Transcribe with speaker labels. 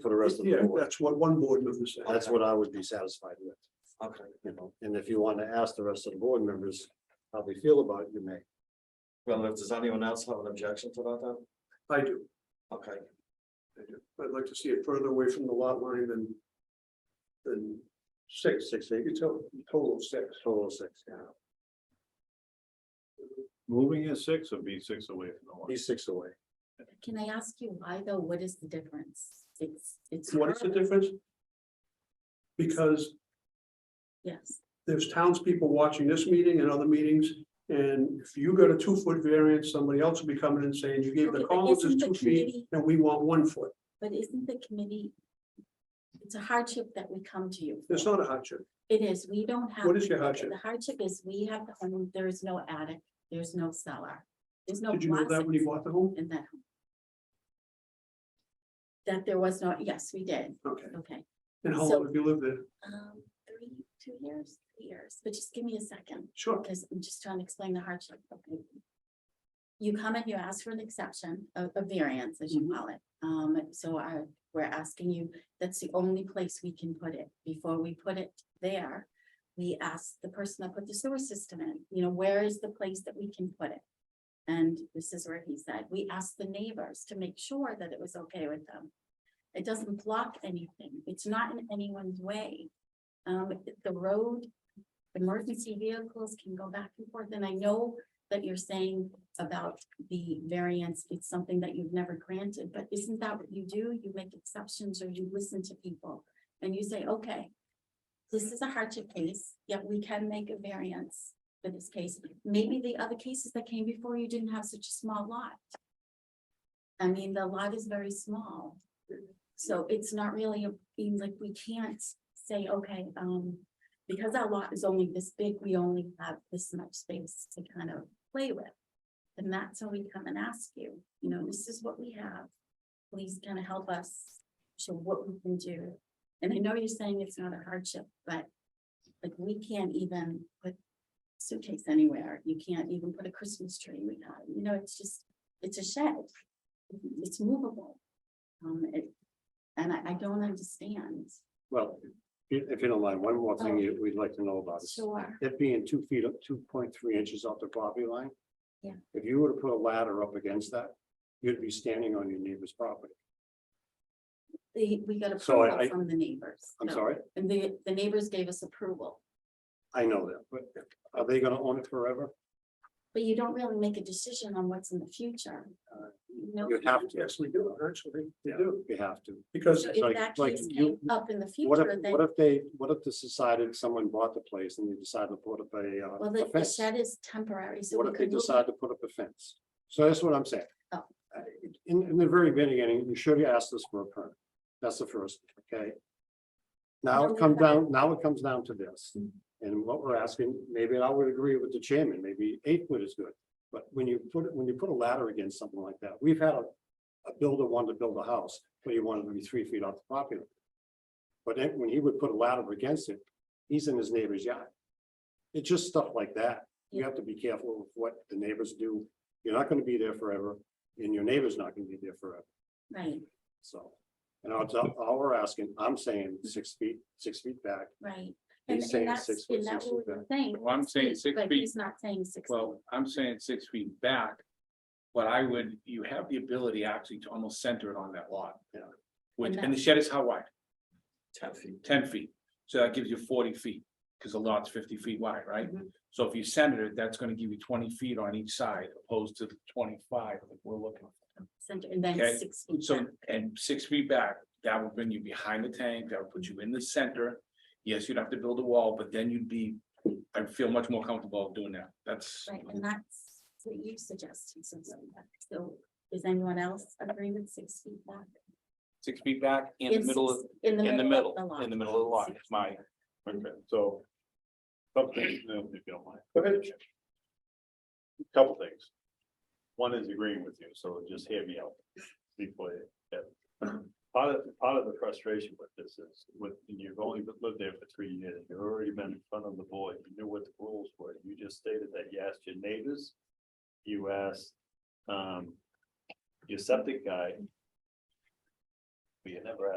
Speaker 1: for the rest of the
Speaker 2: Yeah,
Speaker 1: board.
Speaker 2: that's what one board member said.
Speaker 1: That's what I would be satisfied with,
Speaker 3: Okay,
Speaker 1: you know, and if you want to ask the rest of the board members how they feel about it, you may.
Speaker 3: well, if does anyone else have an objection to that then?
Speaker 2: I do.
Speaker 3: Okay,
Speaker 2: I do. I'd like to see it further away from the lot line than than six.
Speaker 1: Six, eight,
Speaker 2: It's a total of six.
Speaker 1: total of six, yeah,
Speaker 4: Moving is six would be six
Speaker 2: oh
Speaker 4: away from the one.
Speaker 1: he's six away.
Speaker 5: Can I ask you why though? What is the difference? It's, it's.
Speaker 2: What is the
Speaker 5: her,
Speaker 2: difference? Because
Speaker 5: Yes,
Speaker 2: there's townspeople watching this meeting and other meetings. And if you got a two foot variance, somebody else will be coming and saying, you gave
Speaker 5: Okay,
Speaker 2: the
Speaker 5: but
Speaker 2: Collinses
Speaker 5: isn't the
Speaker 2: two feet
Speaker 5: committee-
Speaker 2: and we want one foot.
Speaker 5: but isn't the committee? It's a hardship that we come to you. for.
Speaker 2: It's not a hardship.
Speaker 5: It is, we don't have.
Speaker 2: What is your hardship?
Speaker 5: The hardship is we have, the home. there is no attic, there's no cellar, there's no.
Speaker 2: Did you know that when you bought
Speaker 5: closet
Speaker 2: the home?
Speaker 5: In that. home. That there was no, yes, we did,
Speaker 2: Okay.
Speaker 5: okay.
Speaker 2: And how
Speaker 5: So-
Speaker 2: long have you lived there?
Speaker 5: Um, three, two years, three years, but just give me a second.
Speaker 2: Sure.
Speaker 5: because I'm just trying to explain the hardship. Okay. You come and you ask for an exception, a, a variance, as you call it. Um, so I, we're asking you, that's the only place we can put it. Before we put it there, we ask the person that put the sewer system in, you know, where is the place that we can put it? And this is where he said, we asked the neighbors to make sure that it was okay with them. It doesn't block anything. It's not in anyone's way. Um, the road emergency vehicles can go back and forth, and I know that you're saying about the variance, it's something that you've never granted, but isn't that what you do? You make exceptions or you listen to people and you say, okay, this is a hardship case, yet we can make a variance for this case. Maybe the other cases that came before you didn't have such a small lot. I mean, the lot is very small, so it's not really, a- like, we can't say, okay, um, because our lot is only this big, we only have this much space to kind of play with. And that's when we come and ask you, you know, this is what we have. Please kind of help us show what we can do. And I know you're saying it's not a hardship, but like we can't even put suitcase anywhere. You can't even put a Christmas tree. We got, you know, it's just, it's a shed. It's movable. Um, it, and I, I don't understand.
Speaker 1: Well, if if you don't mind, one more thing you- we'd like to know about is
Speaker 5: Sure.
Speaker 1: it being two feet, up, two point three inches off the property line.
Speaker 5: Yeah.
Speaker 1: If you were to put a ladder up against that, you'd be standing on your neighbor's property.
Speaker 5: The, we got
Speaker 1: So I-
Speaker 5: approval
Speaker 1: I-
Speaker 5: from the neighbors.
Speaker 1: I'm
Speaker 5: so-
Speaker 1: sorry,
Speaker 5: And the, the neighbors gave us approval,
Speaker 1: I know that, but are they gonna own it forever?
Speaker 5: but you don't really make a decision on what's in the future.
Speaker 1: Uh,
Speaker 5: You know,
Speaker 1: You have to,
Speaker 2: Yes, we do, actually. We
Speaker 1: Yeah.
Speaker 2: do.
Speaker 1: you have to.
Speaker 2: Because
Speaker 5: so
Speaker 1: it's like-
Speaker 5: If that
Speaker 1: like
Speaker 5: case
Speaker 1: you-
Speaker 5: came up in the
Speaker 1: What if,
Speaker 5: future, then,
Speaker 1: what if they, what if this decided someone bought the place and they decided to put up a, uh,
Speaker 5: well,
Speaker 1: a
Speaker 5: the- the
Speaker 1: fence?
Speaker 5: shed is temporary, so
Speaker 1: What
Speaker 5: we
Speaker 1: if they
Speaker 5: could move
Speaker 1: decide
Speaker 5: it.
Speaker 1: to put up a fence? So that's what I'm saying.
Speaker 5: Oh.
Speaker 1: Uh, In, in the very beginning, you should have asked us for a permit. That's the first, okay? Now
Speaker 5: No,
Speaker 1: it comes
Speaker 5: we haven't.
Speaker 1: down, now it comes down to this.
Speaker 5: Mhm.
Speaker 1: And what we're asking, maybe I would agree with the chairman, maybe eight foot is good. But when you put, when you put a ladder against something like that, we've had a, a builder wanted to build a house, but he wanted to be three feet off the property. line. But then when he would put a ladder against it, he's in his neighbor's yard. It's just stuff like that. You have to be careful with what the neighbors do. You're not gonna be there forever, and your neighbor's not gonna be there forever,
Speaker 5: Right,
Speaker 1: so. And all, all we're asking, I'm saying six feet, six feet back.
Speaker 5: right. And,
Speaker 1: He's
Speaker 5: and
Speaker 1: saying
Speaker 5: that's,
Speaker 1: six foot,
Speaker 5: and
Speaker 1: six
Speaker 5: that's
Speaker 1: foot
Speaker 5: what we
Speaker 1: back.
Speaker 5: were saying.
Speaker 6: Well, I'm saying six
Speaker 5: But
Speaker 6: feet.
Speaker 5: he's not saying six. feet.
Speaker 6: Well, I'm saying six feet back, but I would, you have the ability actually to almost center it on that lot.
Speaker 1: Yeah.
Speaker 6: Which,
Speaker 5: And
Speaker 6: and the shed is how wide?
Speaker 3: ten feet.
Speaker 6: Ten feet. So that gives you forty feet, because the lot's fifty feet wide, right?
Speaker 5: Mm-hmm.
Speaker 6: So if you center it, that's gonna give you twenty feet on each side opposed to the twenty-five that we're looking.
Speaker 5: Center, and then
Speaker 6: Okay,
Speaker 5: six feet.
Speaker 6: So,
Speaker 5: back.
Speaker 6: and six feet back, that would bring you behind the tank, that would put you in the center. Yes, you'd have to build a wall, but then you'd be, I feel much more comfortable doing that. That's.
Speaker 5: Right, and that's what you suggested, so, so is anyone else agreeing with six feet back?
Speaker 6: six feet back in the
Speaker 5: It's
Speaker 6: middle of,
Speaker 5: six- In the
Speaker 6: in the
Speaker 5: middle,
Speaker 6: middle,
Speaker 5: of the lot.
Speaker 6: in the middle of the lot,
Speaker 5: Six
Speaker 6: it's my,
Speaker 5: feet.
Speaker 4: Okay, so. Something, if you don't mind.
Speaker 2: Go ahead.
Speaker 4: Couple things. One is agreeing with you, so just hear me out before you. yeah. Part of, part of the frustration with this is with, you've only been- lived there for three years, you've already been in front of the board, you knew what the rules were, you just stated that you asked your neighbors. You asked, um, your septic guy. But you never asked